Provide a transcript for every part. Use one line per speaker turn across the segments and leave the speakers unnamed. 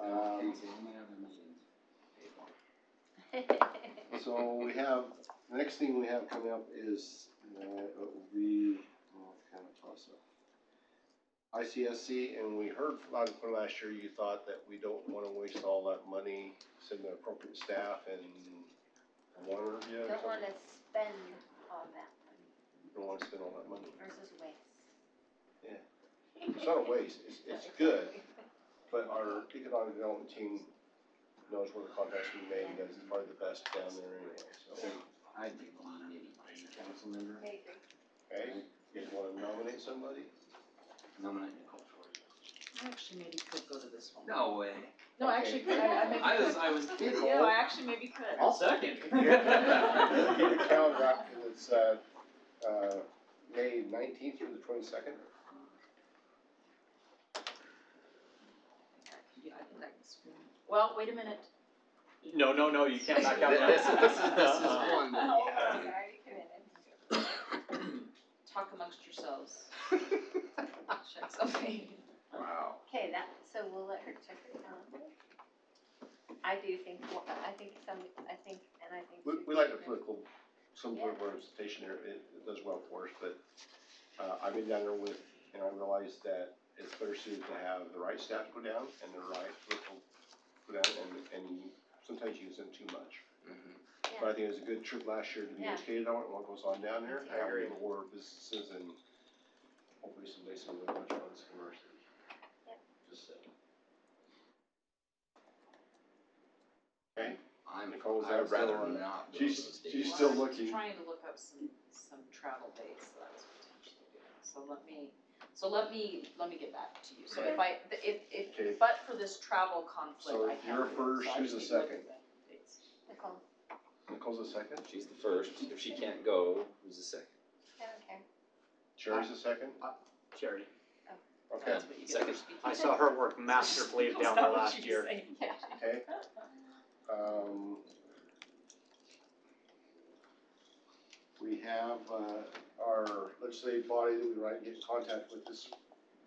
Um, So we have, the next thing we have coming up is, uh, we, well, it's kind of toss up. ICSC, and we heard from, uh, from last year, you thought that we don't wanna waste all that money, send the appropriate staff and water, yeah, or
Don't
something.
wanna spend all that money
Don't wanna spend all that money.
versus waste.
Yeah. It's not a waste, it's, it's good, but our economic development team knows where the contacts we made, and that's probably the best down there anyway, so.
I'd be one, maybe, one council member,
I agree.
Okay, you guys wanna nominate somebody?
nominate Nicole Shore.
I actually maybe could go to this one.
No way.
No, I actually, could. I, I maybe
I was,
could.
I was thinking.
Yeah, I actually maybe could.
I'll second.
Keep the calendar out, 'cause it's, uh, uh, May nineteenth through the twenty-second.
Yeah, I think I can swim. Well, wait a minute.
No, no, no, you can't back out. now.
This is, this is, this is
Uh-uh.
one. that-
Sorry, you committed.
Talk amongst yourselves. Check something.
Wow.
Okay, that, so we'll let her check her calendar. I do think, well, I think some, I think, and I think.
We,
two
we like the
people-
political, some sort of representation there, it, it does well for us, but, uh, I've been down there with, and I realized that it's better suited to have the right staff go down and the right political go down, and, and sometimes you use them too much. But I think it was a good trip last year to be
Yeah.
educated on what goes on down there,
I
how
agree.
people were businesses and hopefully someday someone will watch on this commercial.
Yep.
Just uh, saying. Okay,
I'm,
Nicole's
I'd
out
rather
still on-
not. go
she's-
to those
she's
dates.
still
Well, I was
looking.
Trying to look up some, some travel dates that I was potentially doing, so let me, so let me, let me get back to you. So if I, if,
Okay.
if, but for this travel conflict,
So
I can't.
you're
do it,
first,
so I
who's
just
the
need to look
second?
at the dates.
Nicole,
Nicole's the second,
She's the first, if she can't go, who's the second?
I don't care.
Sherry's the second,
Charity.
okay,
That's what you get
Second.
for speaking.
I saw her work masterfully down there last year.
Yeah.
okay. Um. We have, uh, our legislative body that we write, get in contact with this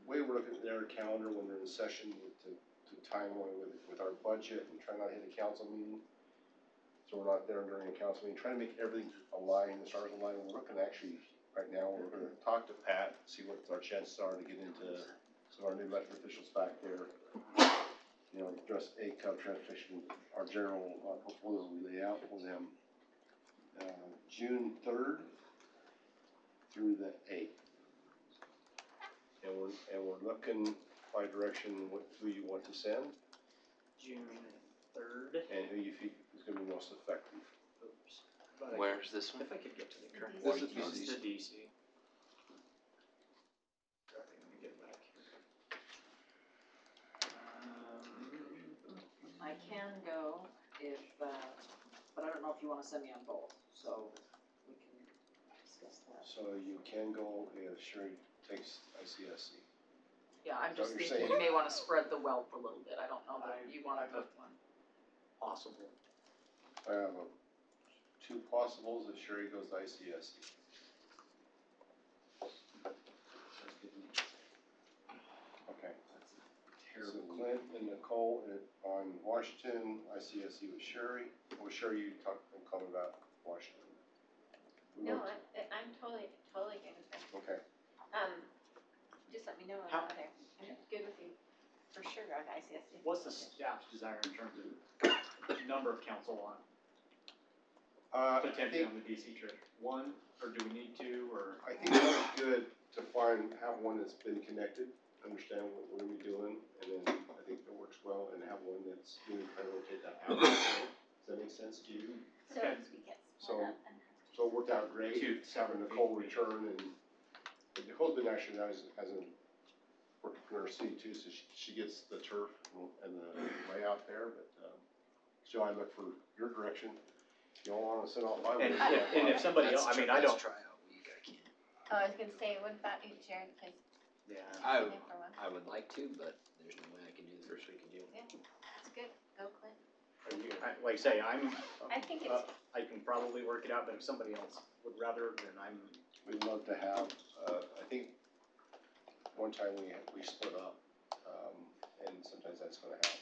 way we're looking at their calendar when they're in session to, to time away with, with our budget and try not to hit a council meeting. So we're not there during a council meeting, trying to make everything align, the stars align, we're looking actually, right now, we're gonna talk to Pat, see what our chances are to get into some of our new elected officials back there. You know, address A cup transportation, our general, uh, proposal we lay out for them. Uh, June third through the eighth. And we're, and we're looking by direction, what, who you want to send
June third.
and who you think is gonna be most effective.
Oops. But I-
Where's this one?
If I could get to the correct.
This
is
This is
the
the DC. Sorry, let me get back here. Um,
I can go if, uh, but I don't know if you wanna send me on both, so we can discuss that.
So you can go if Sherry takes ICSC.
Yeah, I'm
So
just
you're
thinking you
saying-
may wanna spread the wealth a little bit, I don't know
I-
that you wanna
I-
book one.
Possible.
I have uh, two possibles if Sherry goes to ICSC. Okay. So Clint and Nicole in- on Washington, ICSC with Sherry. Well, Sherry, you talked and called about Washington. We
No,
won't-
I, I'm totally, totally good with that.
Okay,
Um, just let me know when
How-
I'm out there. I'm good with you, for sure, on ICSD.
What's the staff's desire in terms of number of council on,
uh, I
potentially
think,
on the DC trip? One, or do we need two, or?
I think that was good to find, have one that's been connected, understand what we're gonna be doing, and then I think that works well, and have one that's really trying to rotate that out. Does that make sense to you?
So
Okay.
we get
So-
split up and.
So it worked out great,
Two.
having Nicole return and, and Nicole's been actually, now has, has a, working in her city too, so she, she gets the turf and the layout there, but, um, so I look for your direction. You all wanna sit off my way?
And if, and if somebody
That's
else, I
tri-
mean, I
that's
don't.
Tryout week, I can't.
Oh, I was gonna say, what about you, Jared, cause
Yeah.
I,
you've been there for a while.
I would like to, but there's no way I can do the first week of June.
Yeah, that's good, go Clint.
Are you- I- Like I say, I'm,
I think
Uh,
it's,
I can probably work it out, but if somebody else would rather, then I'm,
We'd love to have, uh, I think, one time we, we split up, um, and sometimes that's gonna happen.